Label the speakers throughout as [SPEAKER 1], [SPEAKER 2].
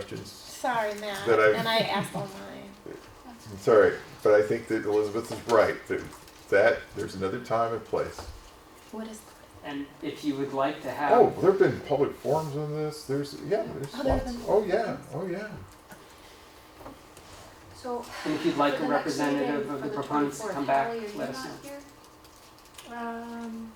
[SPEAKER 1] questions.
[SPEAKER 2] Sorry, Matt.
[SPEAKER 1] That I-
[SPEAKER 2] And I asked online.
[SPEAKER 1] I'm sorry, but I think that Elizabeth is right. That, that there's another time and place.
[SPEAKER 2] What is?
[SPEAKER 3] And if you would like to have,
[SPEAKER 1] Oh, there have been public forums on this. There's yeah, there's
[SPEAKER 2] Oh, there have
[SPEAKER 1] lots.
[SPEAKER 2] been-
[SPEAKER 1] Oh yeah, oh yeah.
[SPEAKER 4] So.
[SPEAKER 3] and if you'd like
[SPEAKER 4] for the
[SPEAKER 3] a
[SPEAKER 4] next
[SPEAKER 3] representative
[SPEAKER 4] meeting
[SPEAKER 3] of
[SPEAKER 4] for
[SPEAKER 3] the proponents to
[SPEAKER 4] 24th,
[SPEAKER 3] come back,
[SPEAKER 4] Hallie, are you
[SPEAKER 3] let us know.
[SPEAKER 4] not here?
[SPEAKER 2] Um,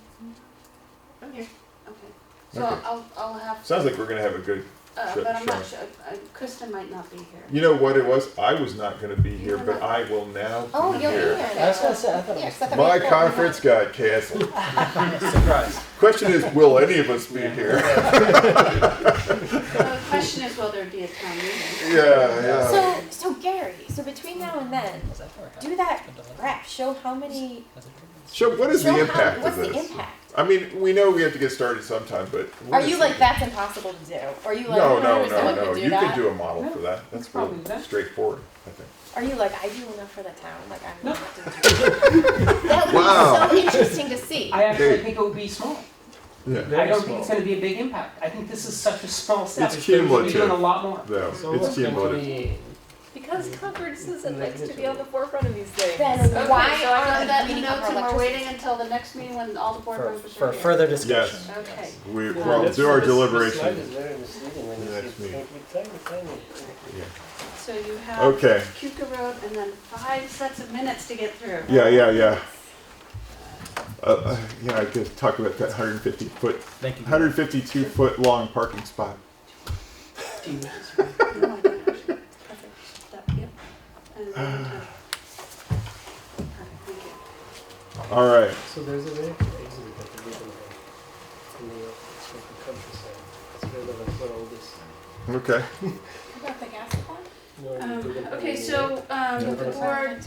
[SPEAKER 4] I'm here, okay. So
[SPEAKER 1] Okay.
[SPEAKER 4] I'll, I'll have,
[SPEAKER 1] Sounds like we're gonna have a good.
[SPEAKER 4] uh,
[SPEAKER 1] Sure,
[SPEAKER 4] but I'm not
[SPEAKER 1] sure.
[SPEAKER 4] sure, uh, Kristen might not be here.
[SPEAKER 1] You know what it was? I was not gonna be here,
[SPEAKER 4] were
[SPEAKER 1] but
[SPEAKER 4] not.
[SPEAKER 1] I will now
[SPEAKER 2] oh,
[SPEAKER 1] be
[SPEAKER 2] you're here.
[SPEAKER 1] here.
[SPEAKER 5] I was gonna
[SPEAKER 2] now.
[SPEAKER 5] say, I thought it
[SPEAKER 2] Yeah,
[SPEAKER 5] was,
[SPEAKER 2] 'cause I thought we
[SPEAKER 1] My
[SPEAKER 2] had four.
[SPEAKER 1] conference got canceled.
[SPEAKER 6] Surprise.
[SPEAKER 1] Question is, will any of us be
[SPEAKER 3] Yeah.
[SPEAKER 1] here?
[SPEAKER 4] The question is, will there be a town meeting?
[SPEAKER 1] Yeah, yeah.
[SPEAKER 2] So, so Gary, so between now and then, do that graph. Show how many.
[SPEAKER 1] so what is
[SPEAKER 2] show
[SPEAKER 1] the
[SPEAKER 2] how,
[SPEAKER 1] impact
[SPEAKER 2] what's
[SPEAKER 1] of this?
[SPEAKER 2] the impact?
[SPEAKER 1] I mean, we know we have to get started sometime, but what
[SPEAKER 2] Are
[SPEAKER 1] is
[SPEAKER 2] you
[SPEAKER 1] the-
[SPEAKER 2] like that's impossible to do? Or are you like
[SPEAKER 1] No, no,
[SPEAKER 2] "There's
[SPEAKER 1] no,
[SPEAKER 2] someone
[SPEAKER 1] no.
[SPEAKER 2] could do
[SPEAKER 1] You
[SPEAKER 2] that?
[SPEAKER 1] can do a model for that. That's
[SPEAKER 3] probably
[SPEAKER 1] real
[SPEAKER 3] that.
[SPEAKER 1] straightforward, I think.
[SPEAKER 2] Are you like I do enough for the town? Like I'm.
[SPEAKER 3] No.
[SPEAKER 2] Not doing that would
[SPEAKER 1] Wow.
[SPEAKER 2] be so interesting to see.
[SPEAKER 3] I actually
[SPEAKER 1] Dude.
[SPEAKER 3] think it would be small.
[SPEAKER 1] Yeah.
[SPEAKER 3] I don't think it's going to be a big impact. I think this is such a small step.
[SPEAKER 1] It's
[SPEAKER 3] We're gonna be
[SPEAKER 1] cumulative.
[SPEAKER 3] doing a lot more.
[SPEAKER 1] No,
[SPEAKER 6] So
[SPEAKER 1] it's
[SPEAKER 6] what's going to
[SPEAKER 1] cumulative.
[SPEAKER 6] be,
[SPEAKER 7] Because conferences likes to be on the forefront of these things.
[SPEAKER 2] Then
[SPEAKER 7] Okay,
[SPEAKER 2] why
[SPEAKER 7] so
[SPEAKER 2] aren't
[SPEAKER 4] Put
[SPEAKER 7] I gotta-
[SPEAKER 4] that in the
[SPEAKER 2] Meeting of
[SPEAKER 4] notes
[SPEAKER 2] our
[SPEAKER 4] and we're
[SPEAKER 2] electricity.
[SPEAKER 4] waiting until the next meeting when all the board
[SPEAKER 6] for,
[SPEAKER 4] members
[SPEAKER 6] for
[SPEAKER 4] are here.
[SPEAKER 6] further discussion.
[SPEAKER 4] Okay.
[SPEAKER 1] We,
[SPEAKER 4] Yeah,
[SPEAKER 1] we'll
[SPEAKER 6] This-
[SPEAKER 1] do our
[SPEAKER 6] this- this slide is
[SPEAKER 1] deliberation.
[SPEAKER 6] very misleading when
[SPEAKER 1] in
[SPEAKER 6] you
[SPEAKER 1] the
[SPEAKER 6] see
[SPEAKER 1] next
[SPEAKER 6] it's
[SPEAKER 1] meeting.
[SPEAKER 6] tiny, tiny, tiny.
[SPEAKER 4] So you have
[SPEAKER 1] Okay.
[SPEAKER 4] Cuca Road and then five sets of minutes to get through.
[SPEAKER 1] Yeah, yeah, yeah. Uh, Uh, yeah, I could talk about that 150 foot,
[SPEAKER 6] Thank you.
[SPEAKER 1] 152 foot long parking spot.
[SPEAKER 4] No, I don't actually. Oh Perfect. That- yep. And then we can- Perfect, thank you.
[SPEAKER 1] All right.
[SPEAKER 6] So there's a way to exit that the legal in the, from the countryside. It's relevant for all this.
[SPEAKER 1] Okay.
[SPEAKER 2] About the gas supply?
[SPEAKER 6] You know,
[SPEAKER 4] Um,
[SPEAKER 6] you can-
[SPEAKER 4] Okay, so, um,
[SPEAKER 6] Yeah.
[SPEAKER 4] the board,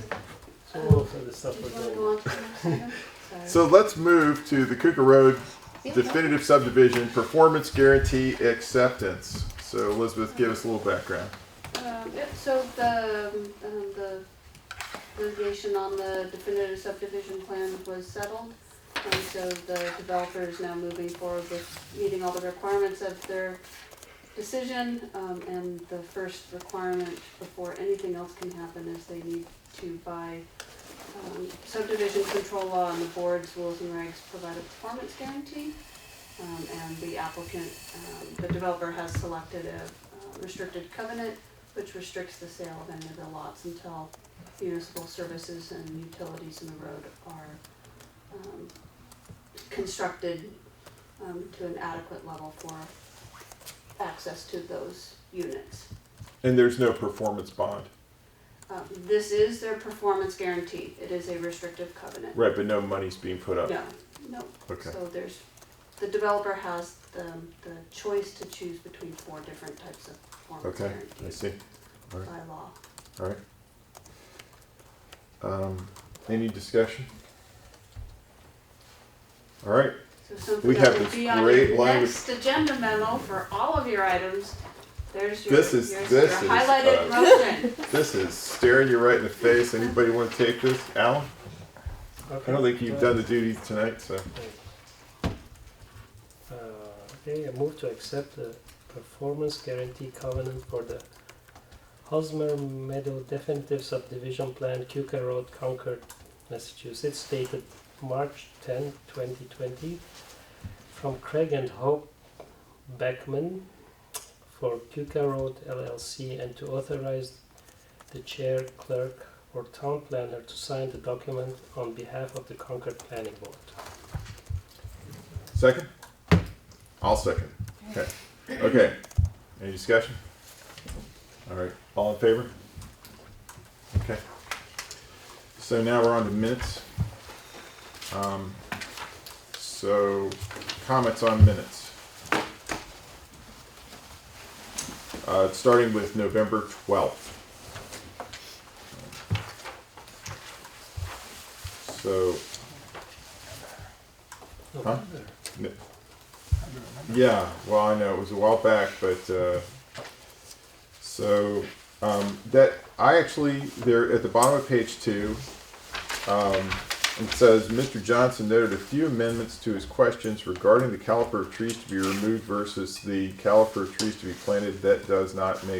[SPEAKER 6] So all of the stuff
[SPEAKER 4] did
[SPEAKER 6] we're
[SPEAKER 4] you wanna
[SPEAKER 6] doing.
[SPEAKER 4] go on to the next item? Sorry.
[SPEAKER 1] So let's move to the Cooker Road definitive subdivision performance guarantee acceptance. So Elizabeth, give us a little background.
[SPEAKER 4] Um, yep, so the, um, the litigation on the definitive subdivision plan was settled. And so the developer is now moving forward with meeting all the requirements of their decision. Um, and the first requirement before anything else can happen is they need to buy, um, subdivision control law and the board's rules and regs provide a performance guarantee. Um, and the applicant, um, the developer has selected a uh, restricted covenant which restricts the sale of any of the lots until municipal services and utilities in the road are um, constructed um, to an adequate level for access to those units.
[SPEAKER 1] And there's no performance bond,
[SPEAKER 4] Uh, This is their performance guarantee. It is a restrictive covenant.
[SPEAKER 1] right? But no money's being put up.
[SPEAKER 4] No, no.
[SPEAKER 1] Okay.
[SPEAKER 4] So there's, the developer has the, the choice to choose between four different types of performance
[SPEAKER 1] Okay. I
[SPEAKER 4] guarantees
[SPEAKER 1] see.
[SPEAKER 4] by
[SPEAKER 1] All right.
[SPEAKER 4] law.
[SPEAKER 1] All right. Um, any discussion? All right.
[SPEAKER 4] So something
[SPEAKER 1] We have
[SPEAKER 4] that would
[SPEAKER 1] this
[SPEAKER 4] be on
[SPEAKER 1] great
[SPEAKER 4] your
[SPEAKER 1] language-
[SPEAKER 4] next agenda memo for all of your items. There's your,
[SPEAKER 1] This is-
[SPEAKER 4] here's
[SPEAKER 1] this
[SPEAKER 4] your
[SPEAKER 1] is,
[SPEAKER 4] highlighted
[SPEAKER 1] uh,
[SPEAKER 4] motion.
[SPEAKER 1] This is staring you right in the face. Anybody want to take this? Alan? I don't think you've done the duties tonight, so.
[SPEAKER 6] Uh, Okay, I move to accept the performance guarantee covenant for the Hosmer Meadow definitive subdivision plan, Cuca Road, Concord, Massachusetts, dated March 10, 2020, from Craig and Hope Beckman for Cuca Road LLC, and to authorize the chair, clerk, or town planner to sign the document on behalf of the Concord Planning Board.
[SPEAKER 1] Second? I'll second. Okay. Okay. Any discussion? All right. All in favor? Okay. So now we're on to minutes. Um, so comments on minutes. Uh, starting with November 12th. So Huh? N- Yeah, well, I know it was a while back, but uh, so um, that I actually there at the bottom of page two, um, it says Mr. Johnson noted a few amendments to his questions regarding the caliper of trees to be removed versus the caliper of trees to be planted that does not make